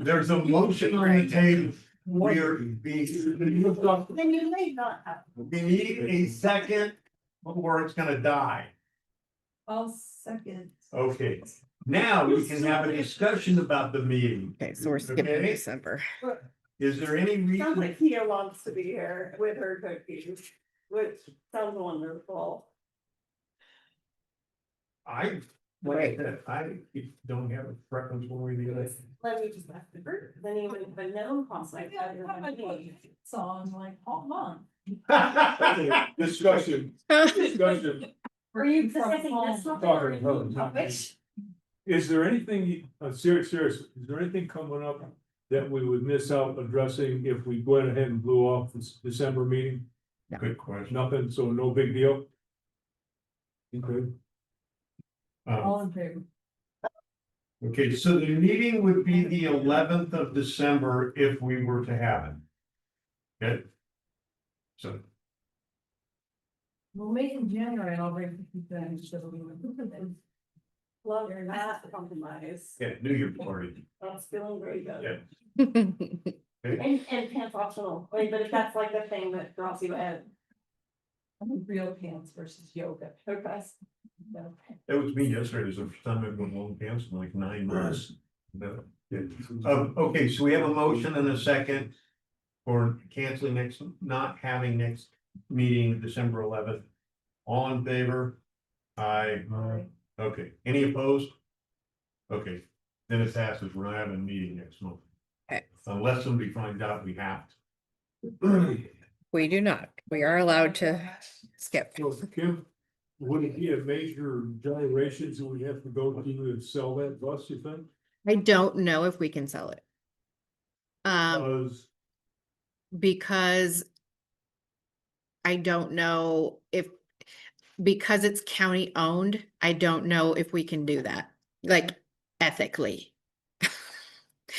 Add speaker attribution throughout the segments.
Speaker 1: There's a motion on the table. We are, we,
Speaker 2: Then you may not have.
Speaker 1: we need a second, or it's gonna die.
Speaker 2: I'll second.
Speaker 1: Okay, now we can have a discussion about the meeting.
Speaker 3: Okay, so we're skipping
Speaker 1: Okay?
Speaker 3: December.
Speaker 1: Is there any
Speaker 2: Sounds
Speaker 1: reason?
Speaker 2: like Kia wants to be here with her cookies, which sounds wonderful.
Speaker 1: I, like I said, I don't have a preference one way or the other.
Speaker 2: Let me just ask the bird, then you wouldn't even know. Paul's like, I don't want to be.
Speaker 4: So I'm like, hold on.
Speaker 5: Discussion, discussion.
Speaker 2: Were you discussing this one?
Speaker 5: Sorry, no, it's not.
Speaker 2: Which?
Speaker 5: Is there anything, uh, serious, serious, is there anything coming up that we would miss out addressing if we went ahead and blew off this December meeting?
Speaker 1: Good question.
Speaker 5: Nothing, so no big deal? Okay,
Speaker 1: Um,
Speaker 4: All in favor?
Speaker 1: Okay, so the meeting would be the eleventh of December if we were to have it. Okay? So,
Speaker 4: We'll meet in January, I'll bring fifty things, so we will.
Speaker 2: Love your math compromise.
Speaker 1: yeah, New Year's party.
Speaker 2: I'm feeling very good.
Speaker 1: Yeah.
Speaker 2: And, and pants optional, Wait, but if that's like the thing that draws you in,
Speaker 4: I'm real pants versus yoga.
Speaker 2: okay.
Speaker 4: No.
Speaker 1: That was me yesterday. It was the first time I've been long pants in like nine months. No. Um, okay, so we have a motion and a second. For canceling next, not having next meeting December eleventh. All in favor? Aye.
Speaker 4: Aye.
Speaker 1: Okay, any opposed? Okay, then it passes. We're not having a meeting next month.
Speaker 4: Eh.
Speaker 3: Okay.
Speaker 1: Unless somebody finds out we have to.
Speaker 3: We do not. We are allowed to skip.
Speaker 5: so Kim, would it be a major gyrations that we have to go to to sell that bus, you think?
Speaker 3: I don't know if we can sell it. Um,
Speaker 5: Because
Speaker 3: because I don't know if, because it's county owned, I don't know if we can do that, like ethically.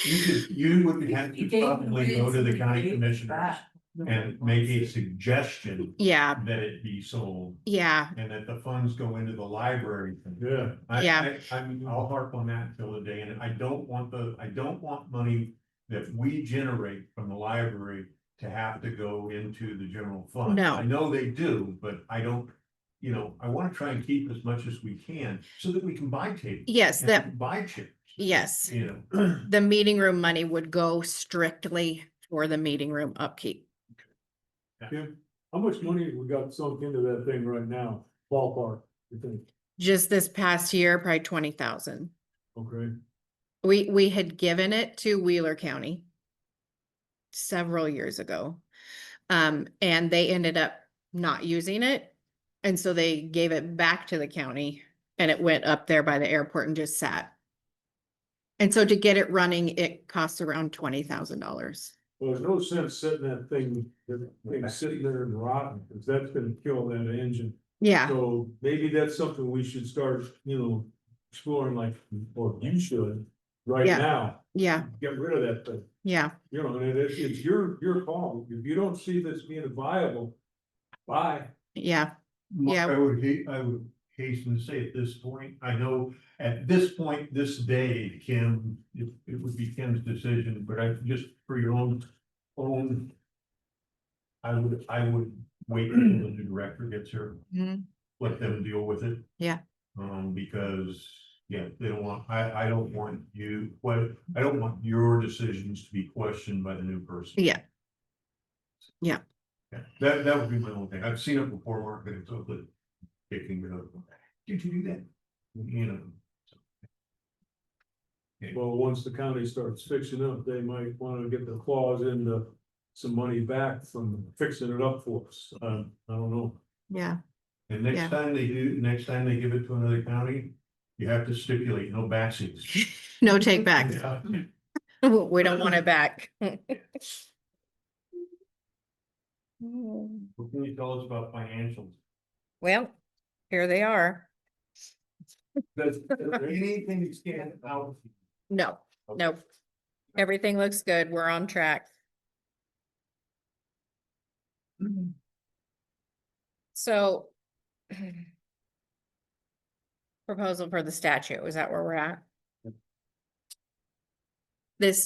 Speaker 1: You could, you would have
Speaker 4: You
Speaker 1: to
Speaker 4: gave them
Speaker 1: probably go to the
Speaker 4: reason to
Speaker 1: county
Speaker 4: do
Speaker 1: commissioners
Speaker 4: that.
Speaker 1: and make a suggestion
Speaker 3: Yeah,
Speaker 1: that it be sold
Speaker 3: yeah,
Speaker 1: and that the funds go into the library.
Speaker 5: Yeah.
Speaker 1: I,
Speaker 3: Yeah.
Speaker 1: I, I'm, I'll harp on that till the day, and I don't want the, I don't want money that we generate from the library to have to go into the general fund.
Speaker 3: No.
Speaker 1: I know they do, but I don't, you know, I wanna try and keep as much as we can so that we can buy tape.
Speaker 3: yes,
Speaker 1: and
Speaker 3: that,
Speaker 1: Buy chips,
Speaker 3: yes.
Speaker 1: you know.
Speaker 3: The meeting room money would go strictly for the meeting room upkeep.
Speaker 5: Kim, how much money we got sunk into that thing right now, ballpark, you think,
Speaker 3: Just this past year, probably twenty thousand.
Speaker 5: okay?
Speaker 3: We, we had given it to Wheeler County several years ago. Um, and they ended up not using it. And so they gave it back to the county and it went up there by the airport and just sat. And so to get it running, it costs around twenty thousand dollars.
Speaker 5: Well, there's no sense setting that thing, that thing sitting there and rotting, because that's gonna kill that engine.
Speaker 2: Ah.
Speaker 3: Yeah,
Speaker 5: So maybe that's something we should start, you know, exploring like, or you should, right
Speaker 3: Yeah.
Speaker 5: now.
Speaker 3: yeah,
Speaker 5: Get rid of that thing,
Speaker 3: yeah,
Speaker 5: you know, and it, it's your, your call, if you don't see this being viable, bye.
Speaker 3: yeah,
Speaker 1: My-
Speaker 3: Yeah.
Speaker 1: I would hate, I would hasten to say at this point, I know at this point, this day, Kim, it, it would be Kim's decision, but I just for your own, own. I would, I would wait until the new director gets here,
Speaker 3: mhm,
Speaker 1: let them deal with it.
Speaker 3: Yeah.
Speaker 1: Um, because, yeah, they don't want, I, I don't want you, what, I don't want your decisions to be questioned by the new person.
Speaker 3: yeah.
Speaker 1: Yeah, that, that would be my own thing. I've seen it before, Mark, but it's totally kicking me up. Did you do that? You know.
Speaker 5: Well, once the county starts fixing up, they might wanna get the clause into some money back from fixing it up for us, um, I don't know.
Speaker 3: Yeah,
Speaker 1: And
Speaker 3: Yeah.
Speaker 1: next time they do, next time they give it to another county, you have to stipulate no backseats.
Speaker 3: no take back.
Speaker 1: Yeah.
Speaker 3: We don't want it back.
Speaker 1: What can you tell us about financials?
Speaker 3: Well, here they are.
Speaker 1: Does is there anything that stand out?
Speaker 3: No, nope. Everything looks good. We're on track. So proposal for the statue, is that where we're at? This